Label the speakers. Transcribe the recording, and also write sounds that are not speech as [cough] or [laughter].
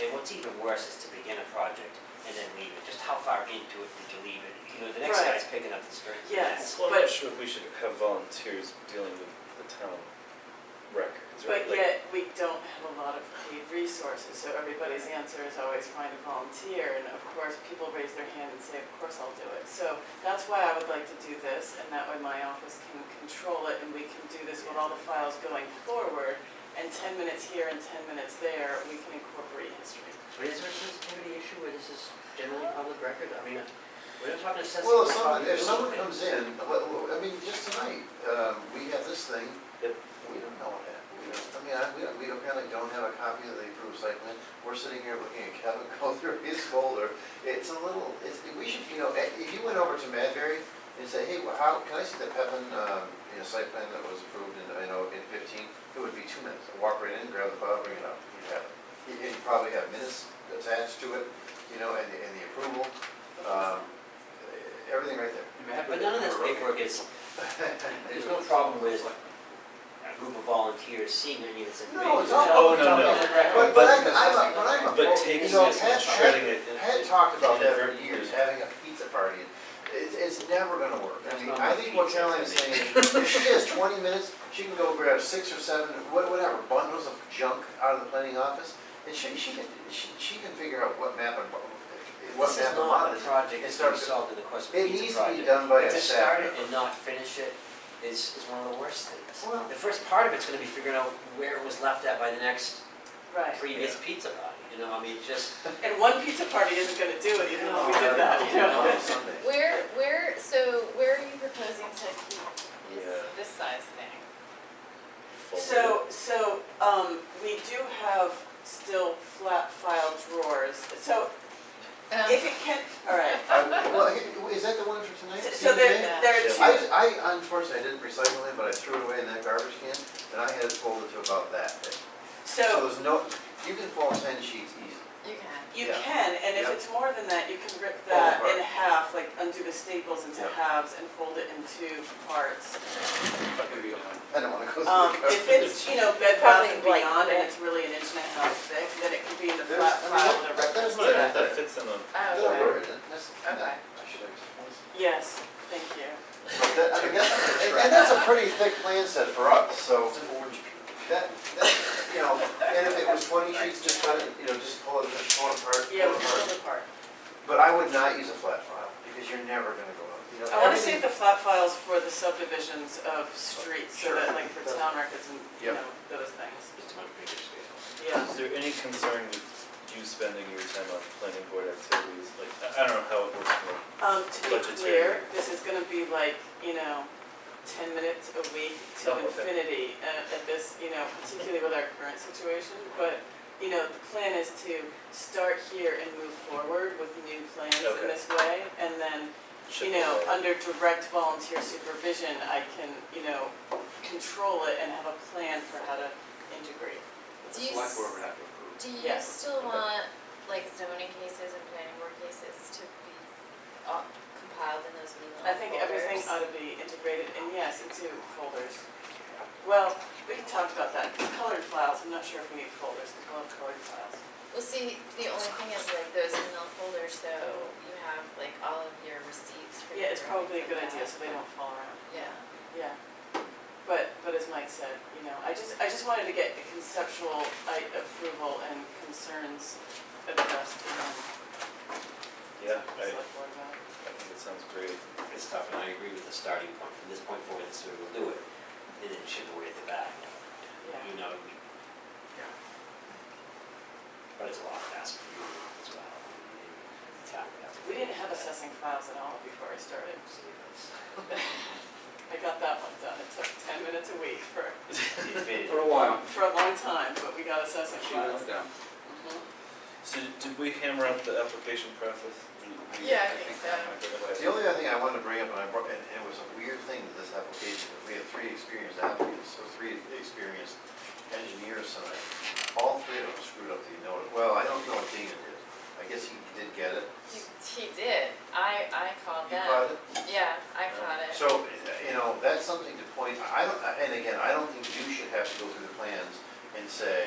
Speaker 1: even worse is to begin a project and then leave it, just how far into it did you leave it? You know, the next
Speaker 2: Right.
Speaker 1: guy's picking up the skirt.
Speaker 2: Yes,
Speaker 3: Well, I'm not
Speaker 2: but,
Speaker 3: sure if we should have volunteers dealing with the town records, right?
Speaker 2: but
Speaker 3: Like,
Speaker 2: yet we don't have a lot of paid resources, so everybody's answer is always find a volunteer. And of course, people raise their hand and say, of course I'll do it. So that's why I would like to do this, and that way my office can control it, and we can do this with all the files going forward. And ten minutes here and ten minutes there, we can incorporate history.
Speaker 4: But is there a sensitivity issue where this is generally public record? I mean, we're not talking sensitive.
Speaker 5: Well, if someone, if someone comes in, well, well, I mean, just tonight, um, we have this thing,
Speaker 3: Yep.
Speaker 5: we don't know what happened. We don't, I mean, I, we don't- we apparently don't have a copy of the approved site plan. We're sitting here looking at Kevin [laughs] go through his folder. It's a little, it's, we should, you know, eh, if you went over to Madberry and said, hey, well, how, can I see the Pevin, um, you know, site plan that was approved in, you know, in fifteen? It would be two minutes. I'd Walk right in, grab the file, bring it up. You'd have it. You- You'd probably have minutes attached to it, you know, and, the- and the approval. Um, everything right there.
Speaker 1: But none of this paperwork is, there's no problem with a group of volunteers seeing any of this information.
Speaker 5: No, it's all-
Speaker 3: Oh, no, no.
Speaker 5: But, but I'm, I'm, a- but I'm. a-
Speaker 3: But taking
Speaker 5: you know,
Speaker 3: this and
Speaker 5: Pat-
Speaker 3: shredding it.
Speaker 5: Pat- Pat talked about that for years, having a pizza party, it's, it's never gonna work. I mean, I think what Caroline is saying, is, if she has twenty minutes, she can go grab six or seven, wha- whatever, bundles of junk out of the planning office, and she, she can, she, she can figure out what map and, what- what
Speaker 1: This is
Speaker 5: map and
Speaker 1: not
Speaker 5: lot
Speaker 1: a
Speaker 5: is. Uh,
Speaker 1: project
Speaker 5: It
Speaker 1: that's gonna be
Speaker 5: starts,
Speaker 1: solved in the course of a
Speaker 5: it
Speaker 1: pizza
Speaker 5: needs to
Speaker 1: project.
Speaker 5: be done by a
Speaker 1: To start
Speaker 5: staff.
Speaker 1: it and not finish it is, is one of the worst things.
Speaker 5: Well-
Speaker 1: The first part of it's gonna be figuring out where it was left at by the next
Speaker 2: Right.
Speaker 1: previous pizza party, you know, I mean, [laughs] just,
Speaker 2: And one pizza party isn't gonna do it, even if we did that, you know?
Speaker 5: On
Speaker 6: [laughs]
Speaker 5: Sunday.
Speaker 6: Where, where, so where are you proposing to keep
Speaker 3: Yeah.
Speaker 6: this, this size thing?
Speaker 2: So, so, um, we do have still flat file drawers, so
Speaker 6: Um,
Speaker 2: if it can, all right.
Speaker 5: I- Uh, Well, he- is that the one for tonight?
Speaker 2: So there,
Speaker 5: CBA?
Speaker 2: there
Speaker 5: I,
Speaker 2: are two,
Speaker 5: I unfortunately, I didn't recycle it, but I threw it away in that garbage can, and I had it folded to about that big. So
Speaker 2: so
Speaker 5: there's no, you can fold ten sheets easy.
Speaker 6: You can.
Speaker 2: you
Speaker 5: yeah.
Speaker 2: can, and if
Speaker 5: Yeah.
Speaker 2: it's more than that, you can rip
Speaker 5: Fold
Speaker 2: that
Speaker 5: apart.
Speaker 2: in half, like undo the staples into
Speaker 5: Yeah.
Speaker 2: halves and fold it into parts.
Speaker 5: I don't wanna go through the
Speaker 2: Um,
Speaker 5: garbage.
Speaker 2: if it's, you know, bed bath and
Speaker 6: Probably like
Speaker 2: beyond, and
Speaker 6: that.
Speaker 2: it's really an inch and a half thick, then it can be in the
Speaker 5: There's-
Speaker 2: flat
Speaker 5: I mean,
Speaker 2: file
Speaker 5: that-
Speaker 2: with a
Speaker 5: that-
Speaker 2: reference
Speaker 5: that's
Speaker 2: to
Speaker 5: what I-
Speaker 2: that.
Speaker 3: That fits in the,
Speaker 6: Oh,
Speaker 5: Don't
Speaker 6: okay.
Speaker 5: worry, that- that's,
Speaker 6: Okay.
Speaker 5: that- I should have explained.
Speaker 2: Yes, thank you.
Speaker 5: But that- I mean, that's- And and that's a pretty thick plan set for us, so that, that, you know, and if it was twenty sheets, just let it, you know, just pull it, just pull it apart, pull
Speaker 2: Yeah,
Speaker 5: it
Speaker 2: we can
Speaker 5: apart.
Speaker 2: pull apart.
Speaker 5: But I would not use a flat file, because you're never gonna go up, you know.
Speaker 2: I wanna
Speaker 5: everything-
Speaker 2: save the flat files for the subdivisions of streets, so
Speaker 5: Sure.
Speaker 2: that like for town records and, you
Speaker 5: Yep.
Speaker 2: know, those things,
Speaker 1: just on a bigger scale.
Speaker 2: yeah.
Speaker 3: is there any concern with you spending your time on planning board activities? Like, I- I don't know how it works for
Speaker 2: Um, to be clear,
Speaker 3: Budgetary.
Speaker 2: this is gonna be like, you know, ten minutes a week to
Speaker 3: Oh, okay.
Speaker 2: infinity uh, at this, you know, particularly with our current situation, but, you know, the plan is to start here and move forward with new plans in
Speaker 3: Okay.
Speaker 2: this way, and then, you know, under direct volunteer supervision, I can, you know, control it and have a plan for how to integrate.
Speaker 6: Do you,
Speaker 1: Select board
Speaker 6: s-
Speaker 1: would have to approve.
Speaker 6: do you
Speaker 2: Yeah.
Speaker 6: still want, like zoning cases and planning board cases to be all compiled in those email
Speaker 2: I think everything
Speaker 6: folders?
Speaker 2: ought to be integrated, and yes, into folders. Well, we can talk about that, colored files, I'm not sure if we need folders, because we'll have colored files.
Speaker 6: Well, see, the only thing is like those email folders, so you have like all of your receipts for.
Speaker 2: Yeah, it's
Speaker 6: your-
Speaker 2: probably a good idea, so they don't fall around,
Speaker 6: Yeah.
Speaker 2: yeah. But, but as Mike said, you know, I just, I just wanted to get the conceptual I- approval and concerns addressed in the
Speaker 3: Yeah, I, I
Speaker 2: select board memo.
Speaker 3: think it sounds great.
Speaker 1: It's tough, and I agree with the starting point, from this point forward, this is where we'll do it, and then chip away at the back,
Speaker 2: Yeah.
Speaker 1: you know? we- But it's a lot faster for you as well. The town would have to-
Speaker 2: We didn't have assessing files at all before I started,
Speaker 1: So, it's-
Speaker 2: I got that one done, it took ten minutes a week for
Speaker 1: it fitted.
Speaker 7: For a while.
Speaker 2: for a long time, but we got assessing
Speaker 7: She
Speaker 2: files.
Speaker 7: moved down.
Speaker 2: Mhm.
Speaker 3: So did we hammer out the application process? We- we-
Speaker 6: Yeah, I think so.
Speaker 5: The only other thing I wanted to bring up, and I brought, and it was a weird thing with this application, is we had three experienced applicants, or three experienced engineers tonight. All three of them screwed up the notice, well, I don't know what Dana did, I guess he did get it.
Speaker 6: He, he did. I, I called
Speaker 5: He
Speaker 6: them.
Speaker 5: caught it?
Speaker 6: Yeah, I caught it.
Speaker 5: So, you know, that's something to point, I don't, and again, I don't think you should have to go through the plans and say,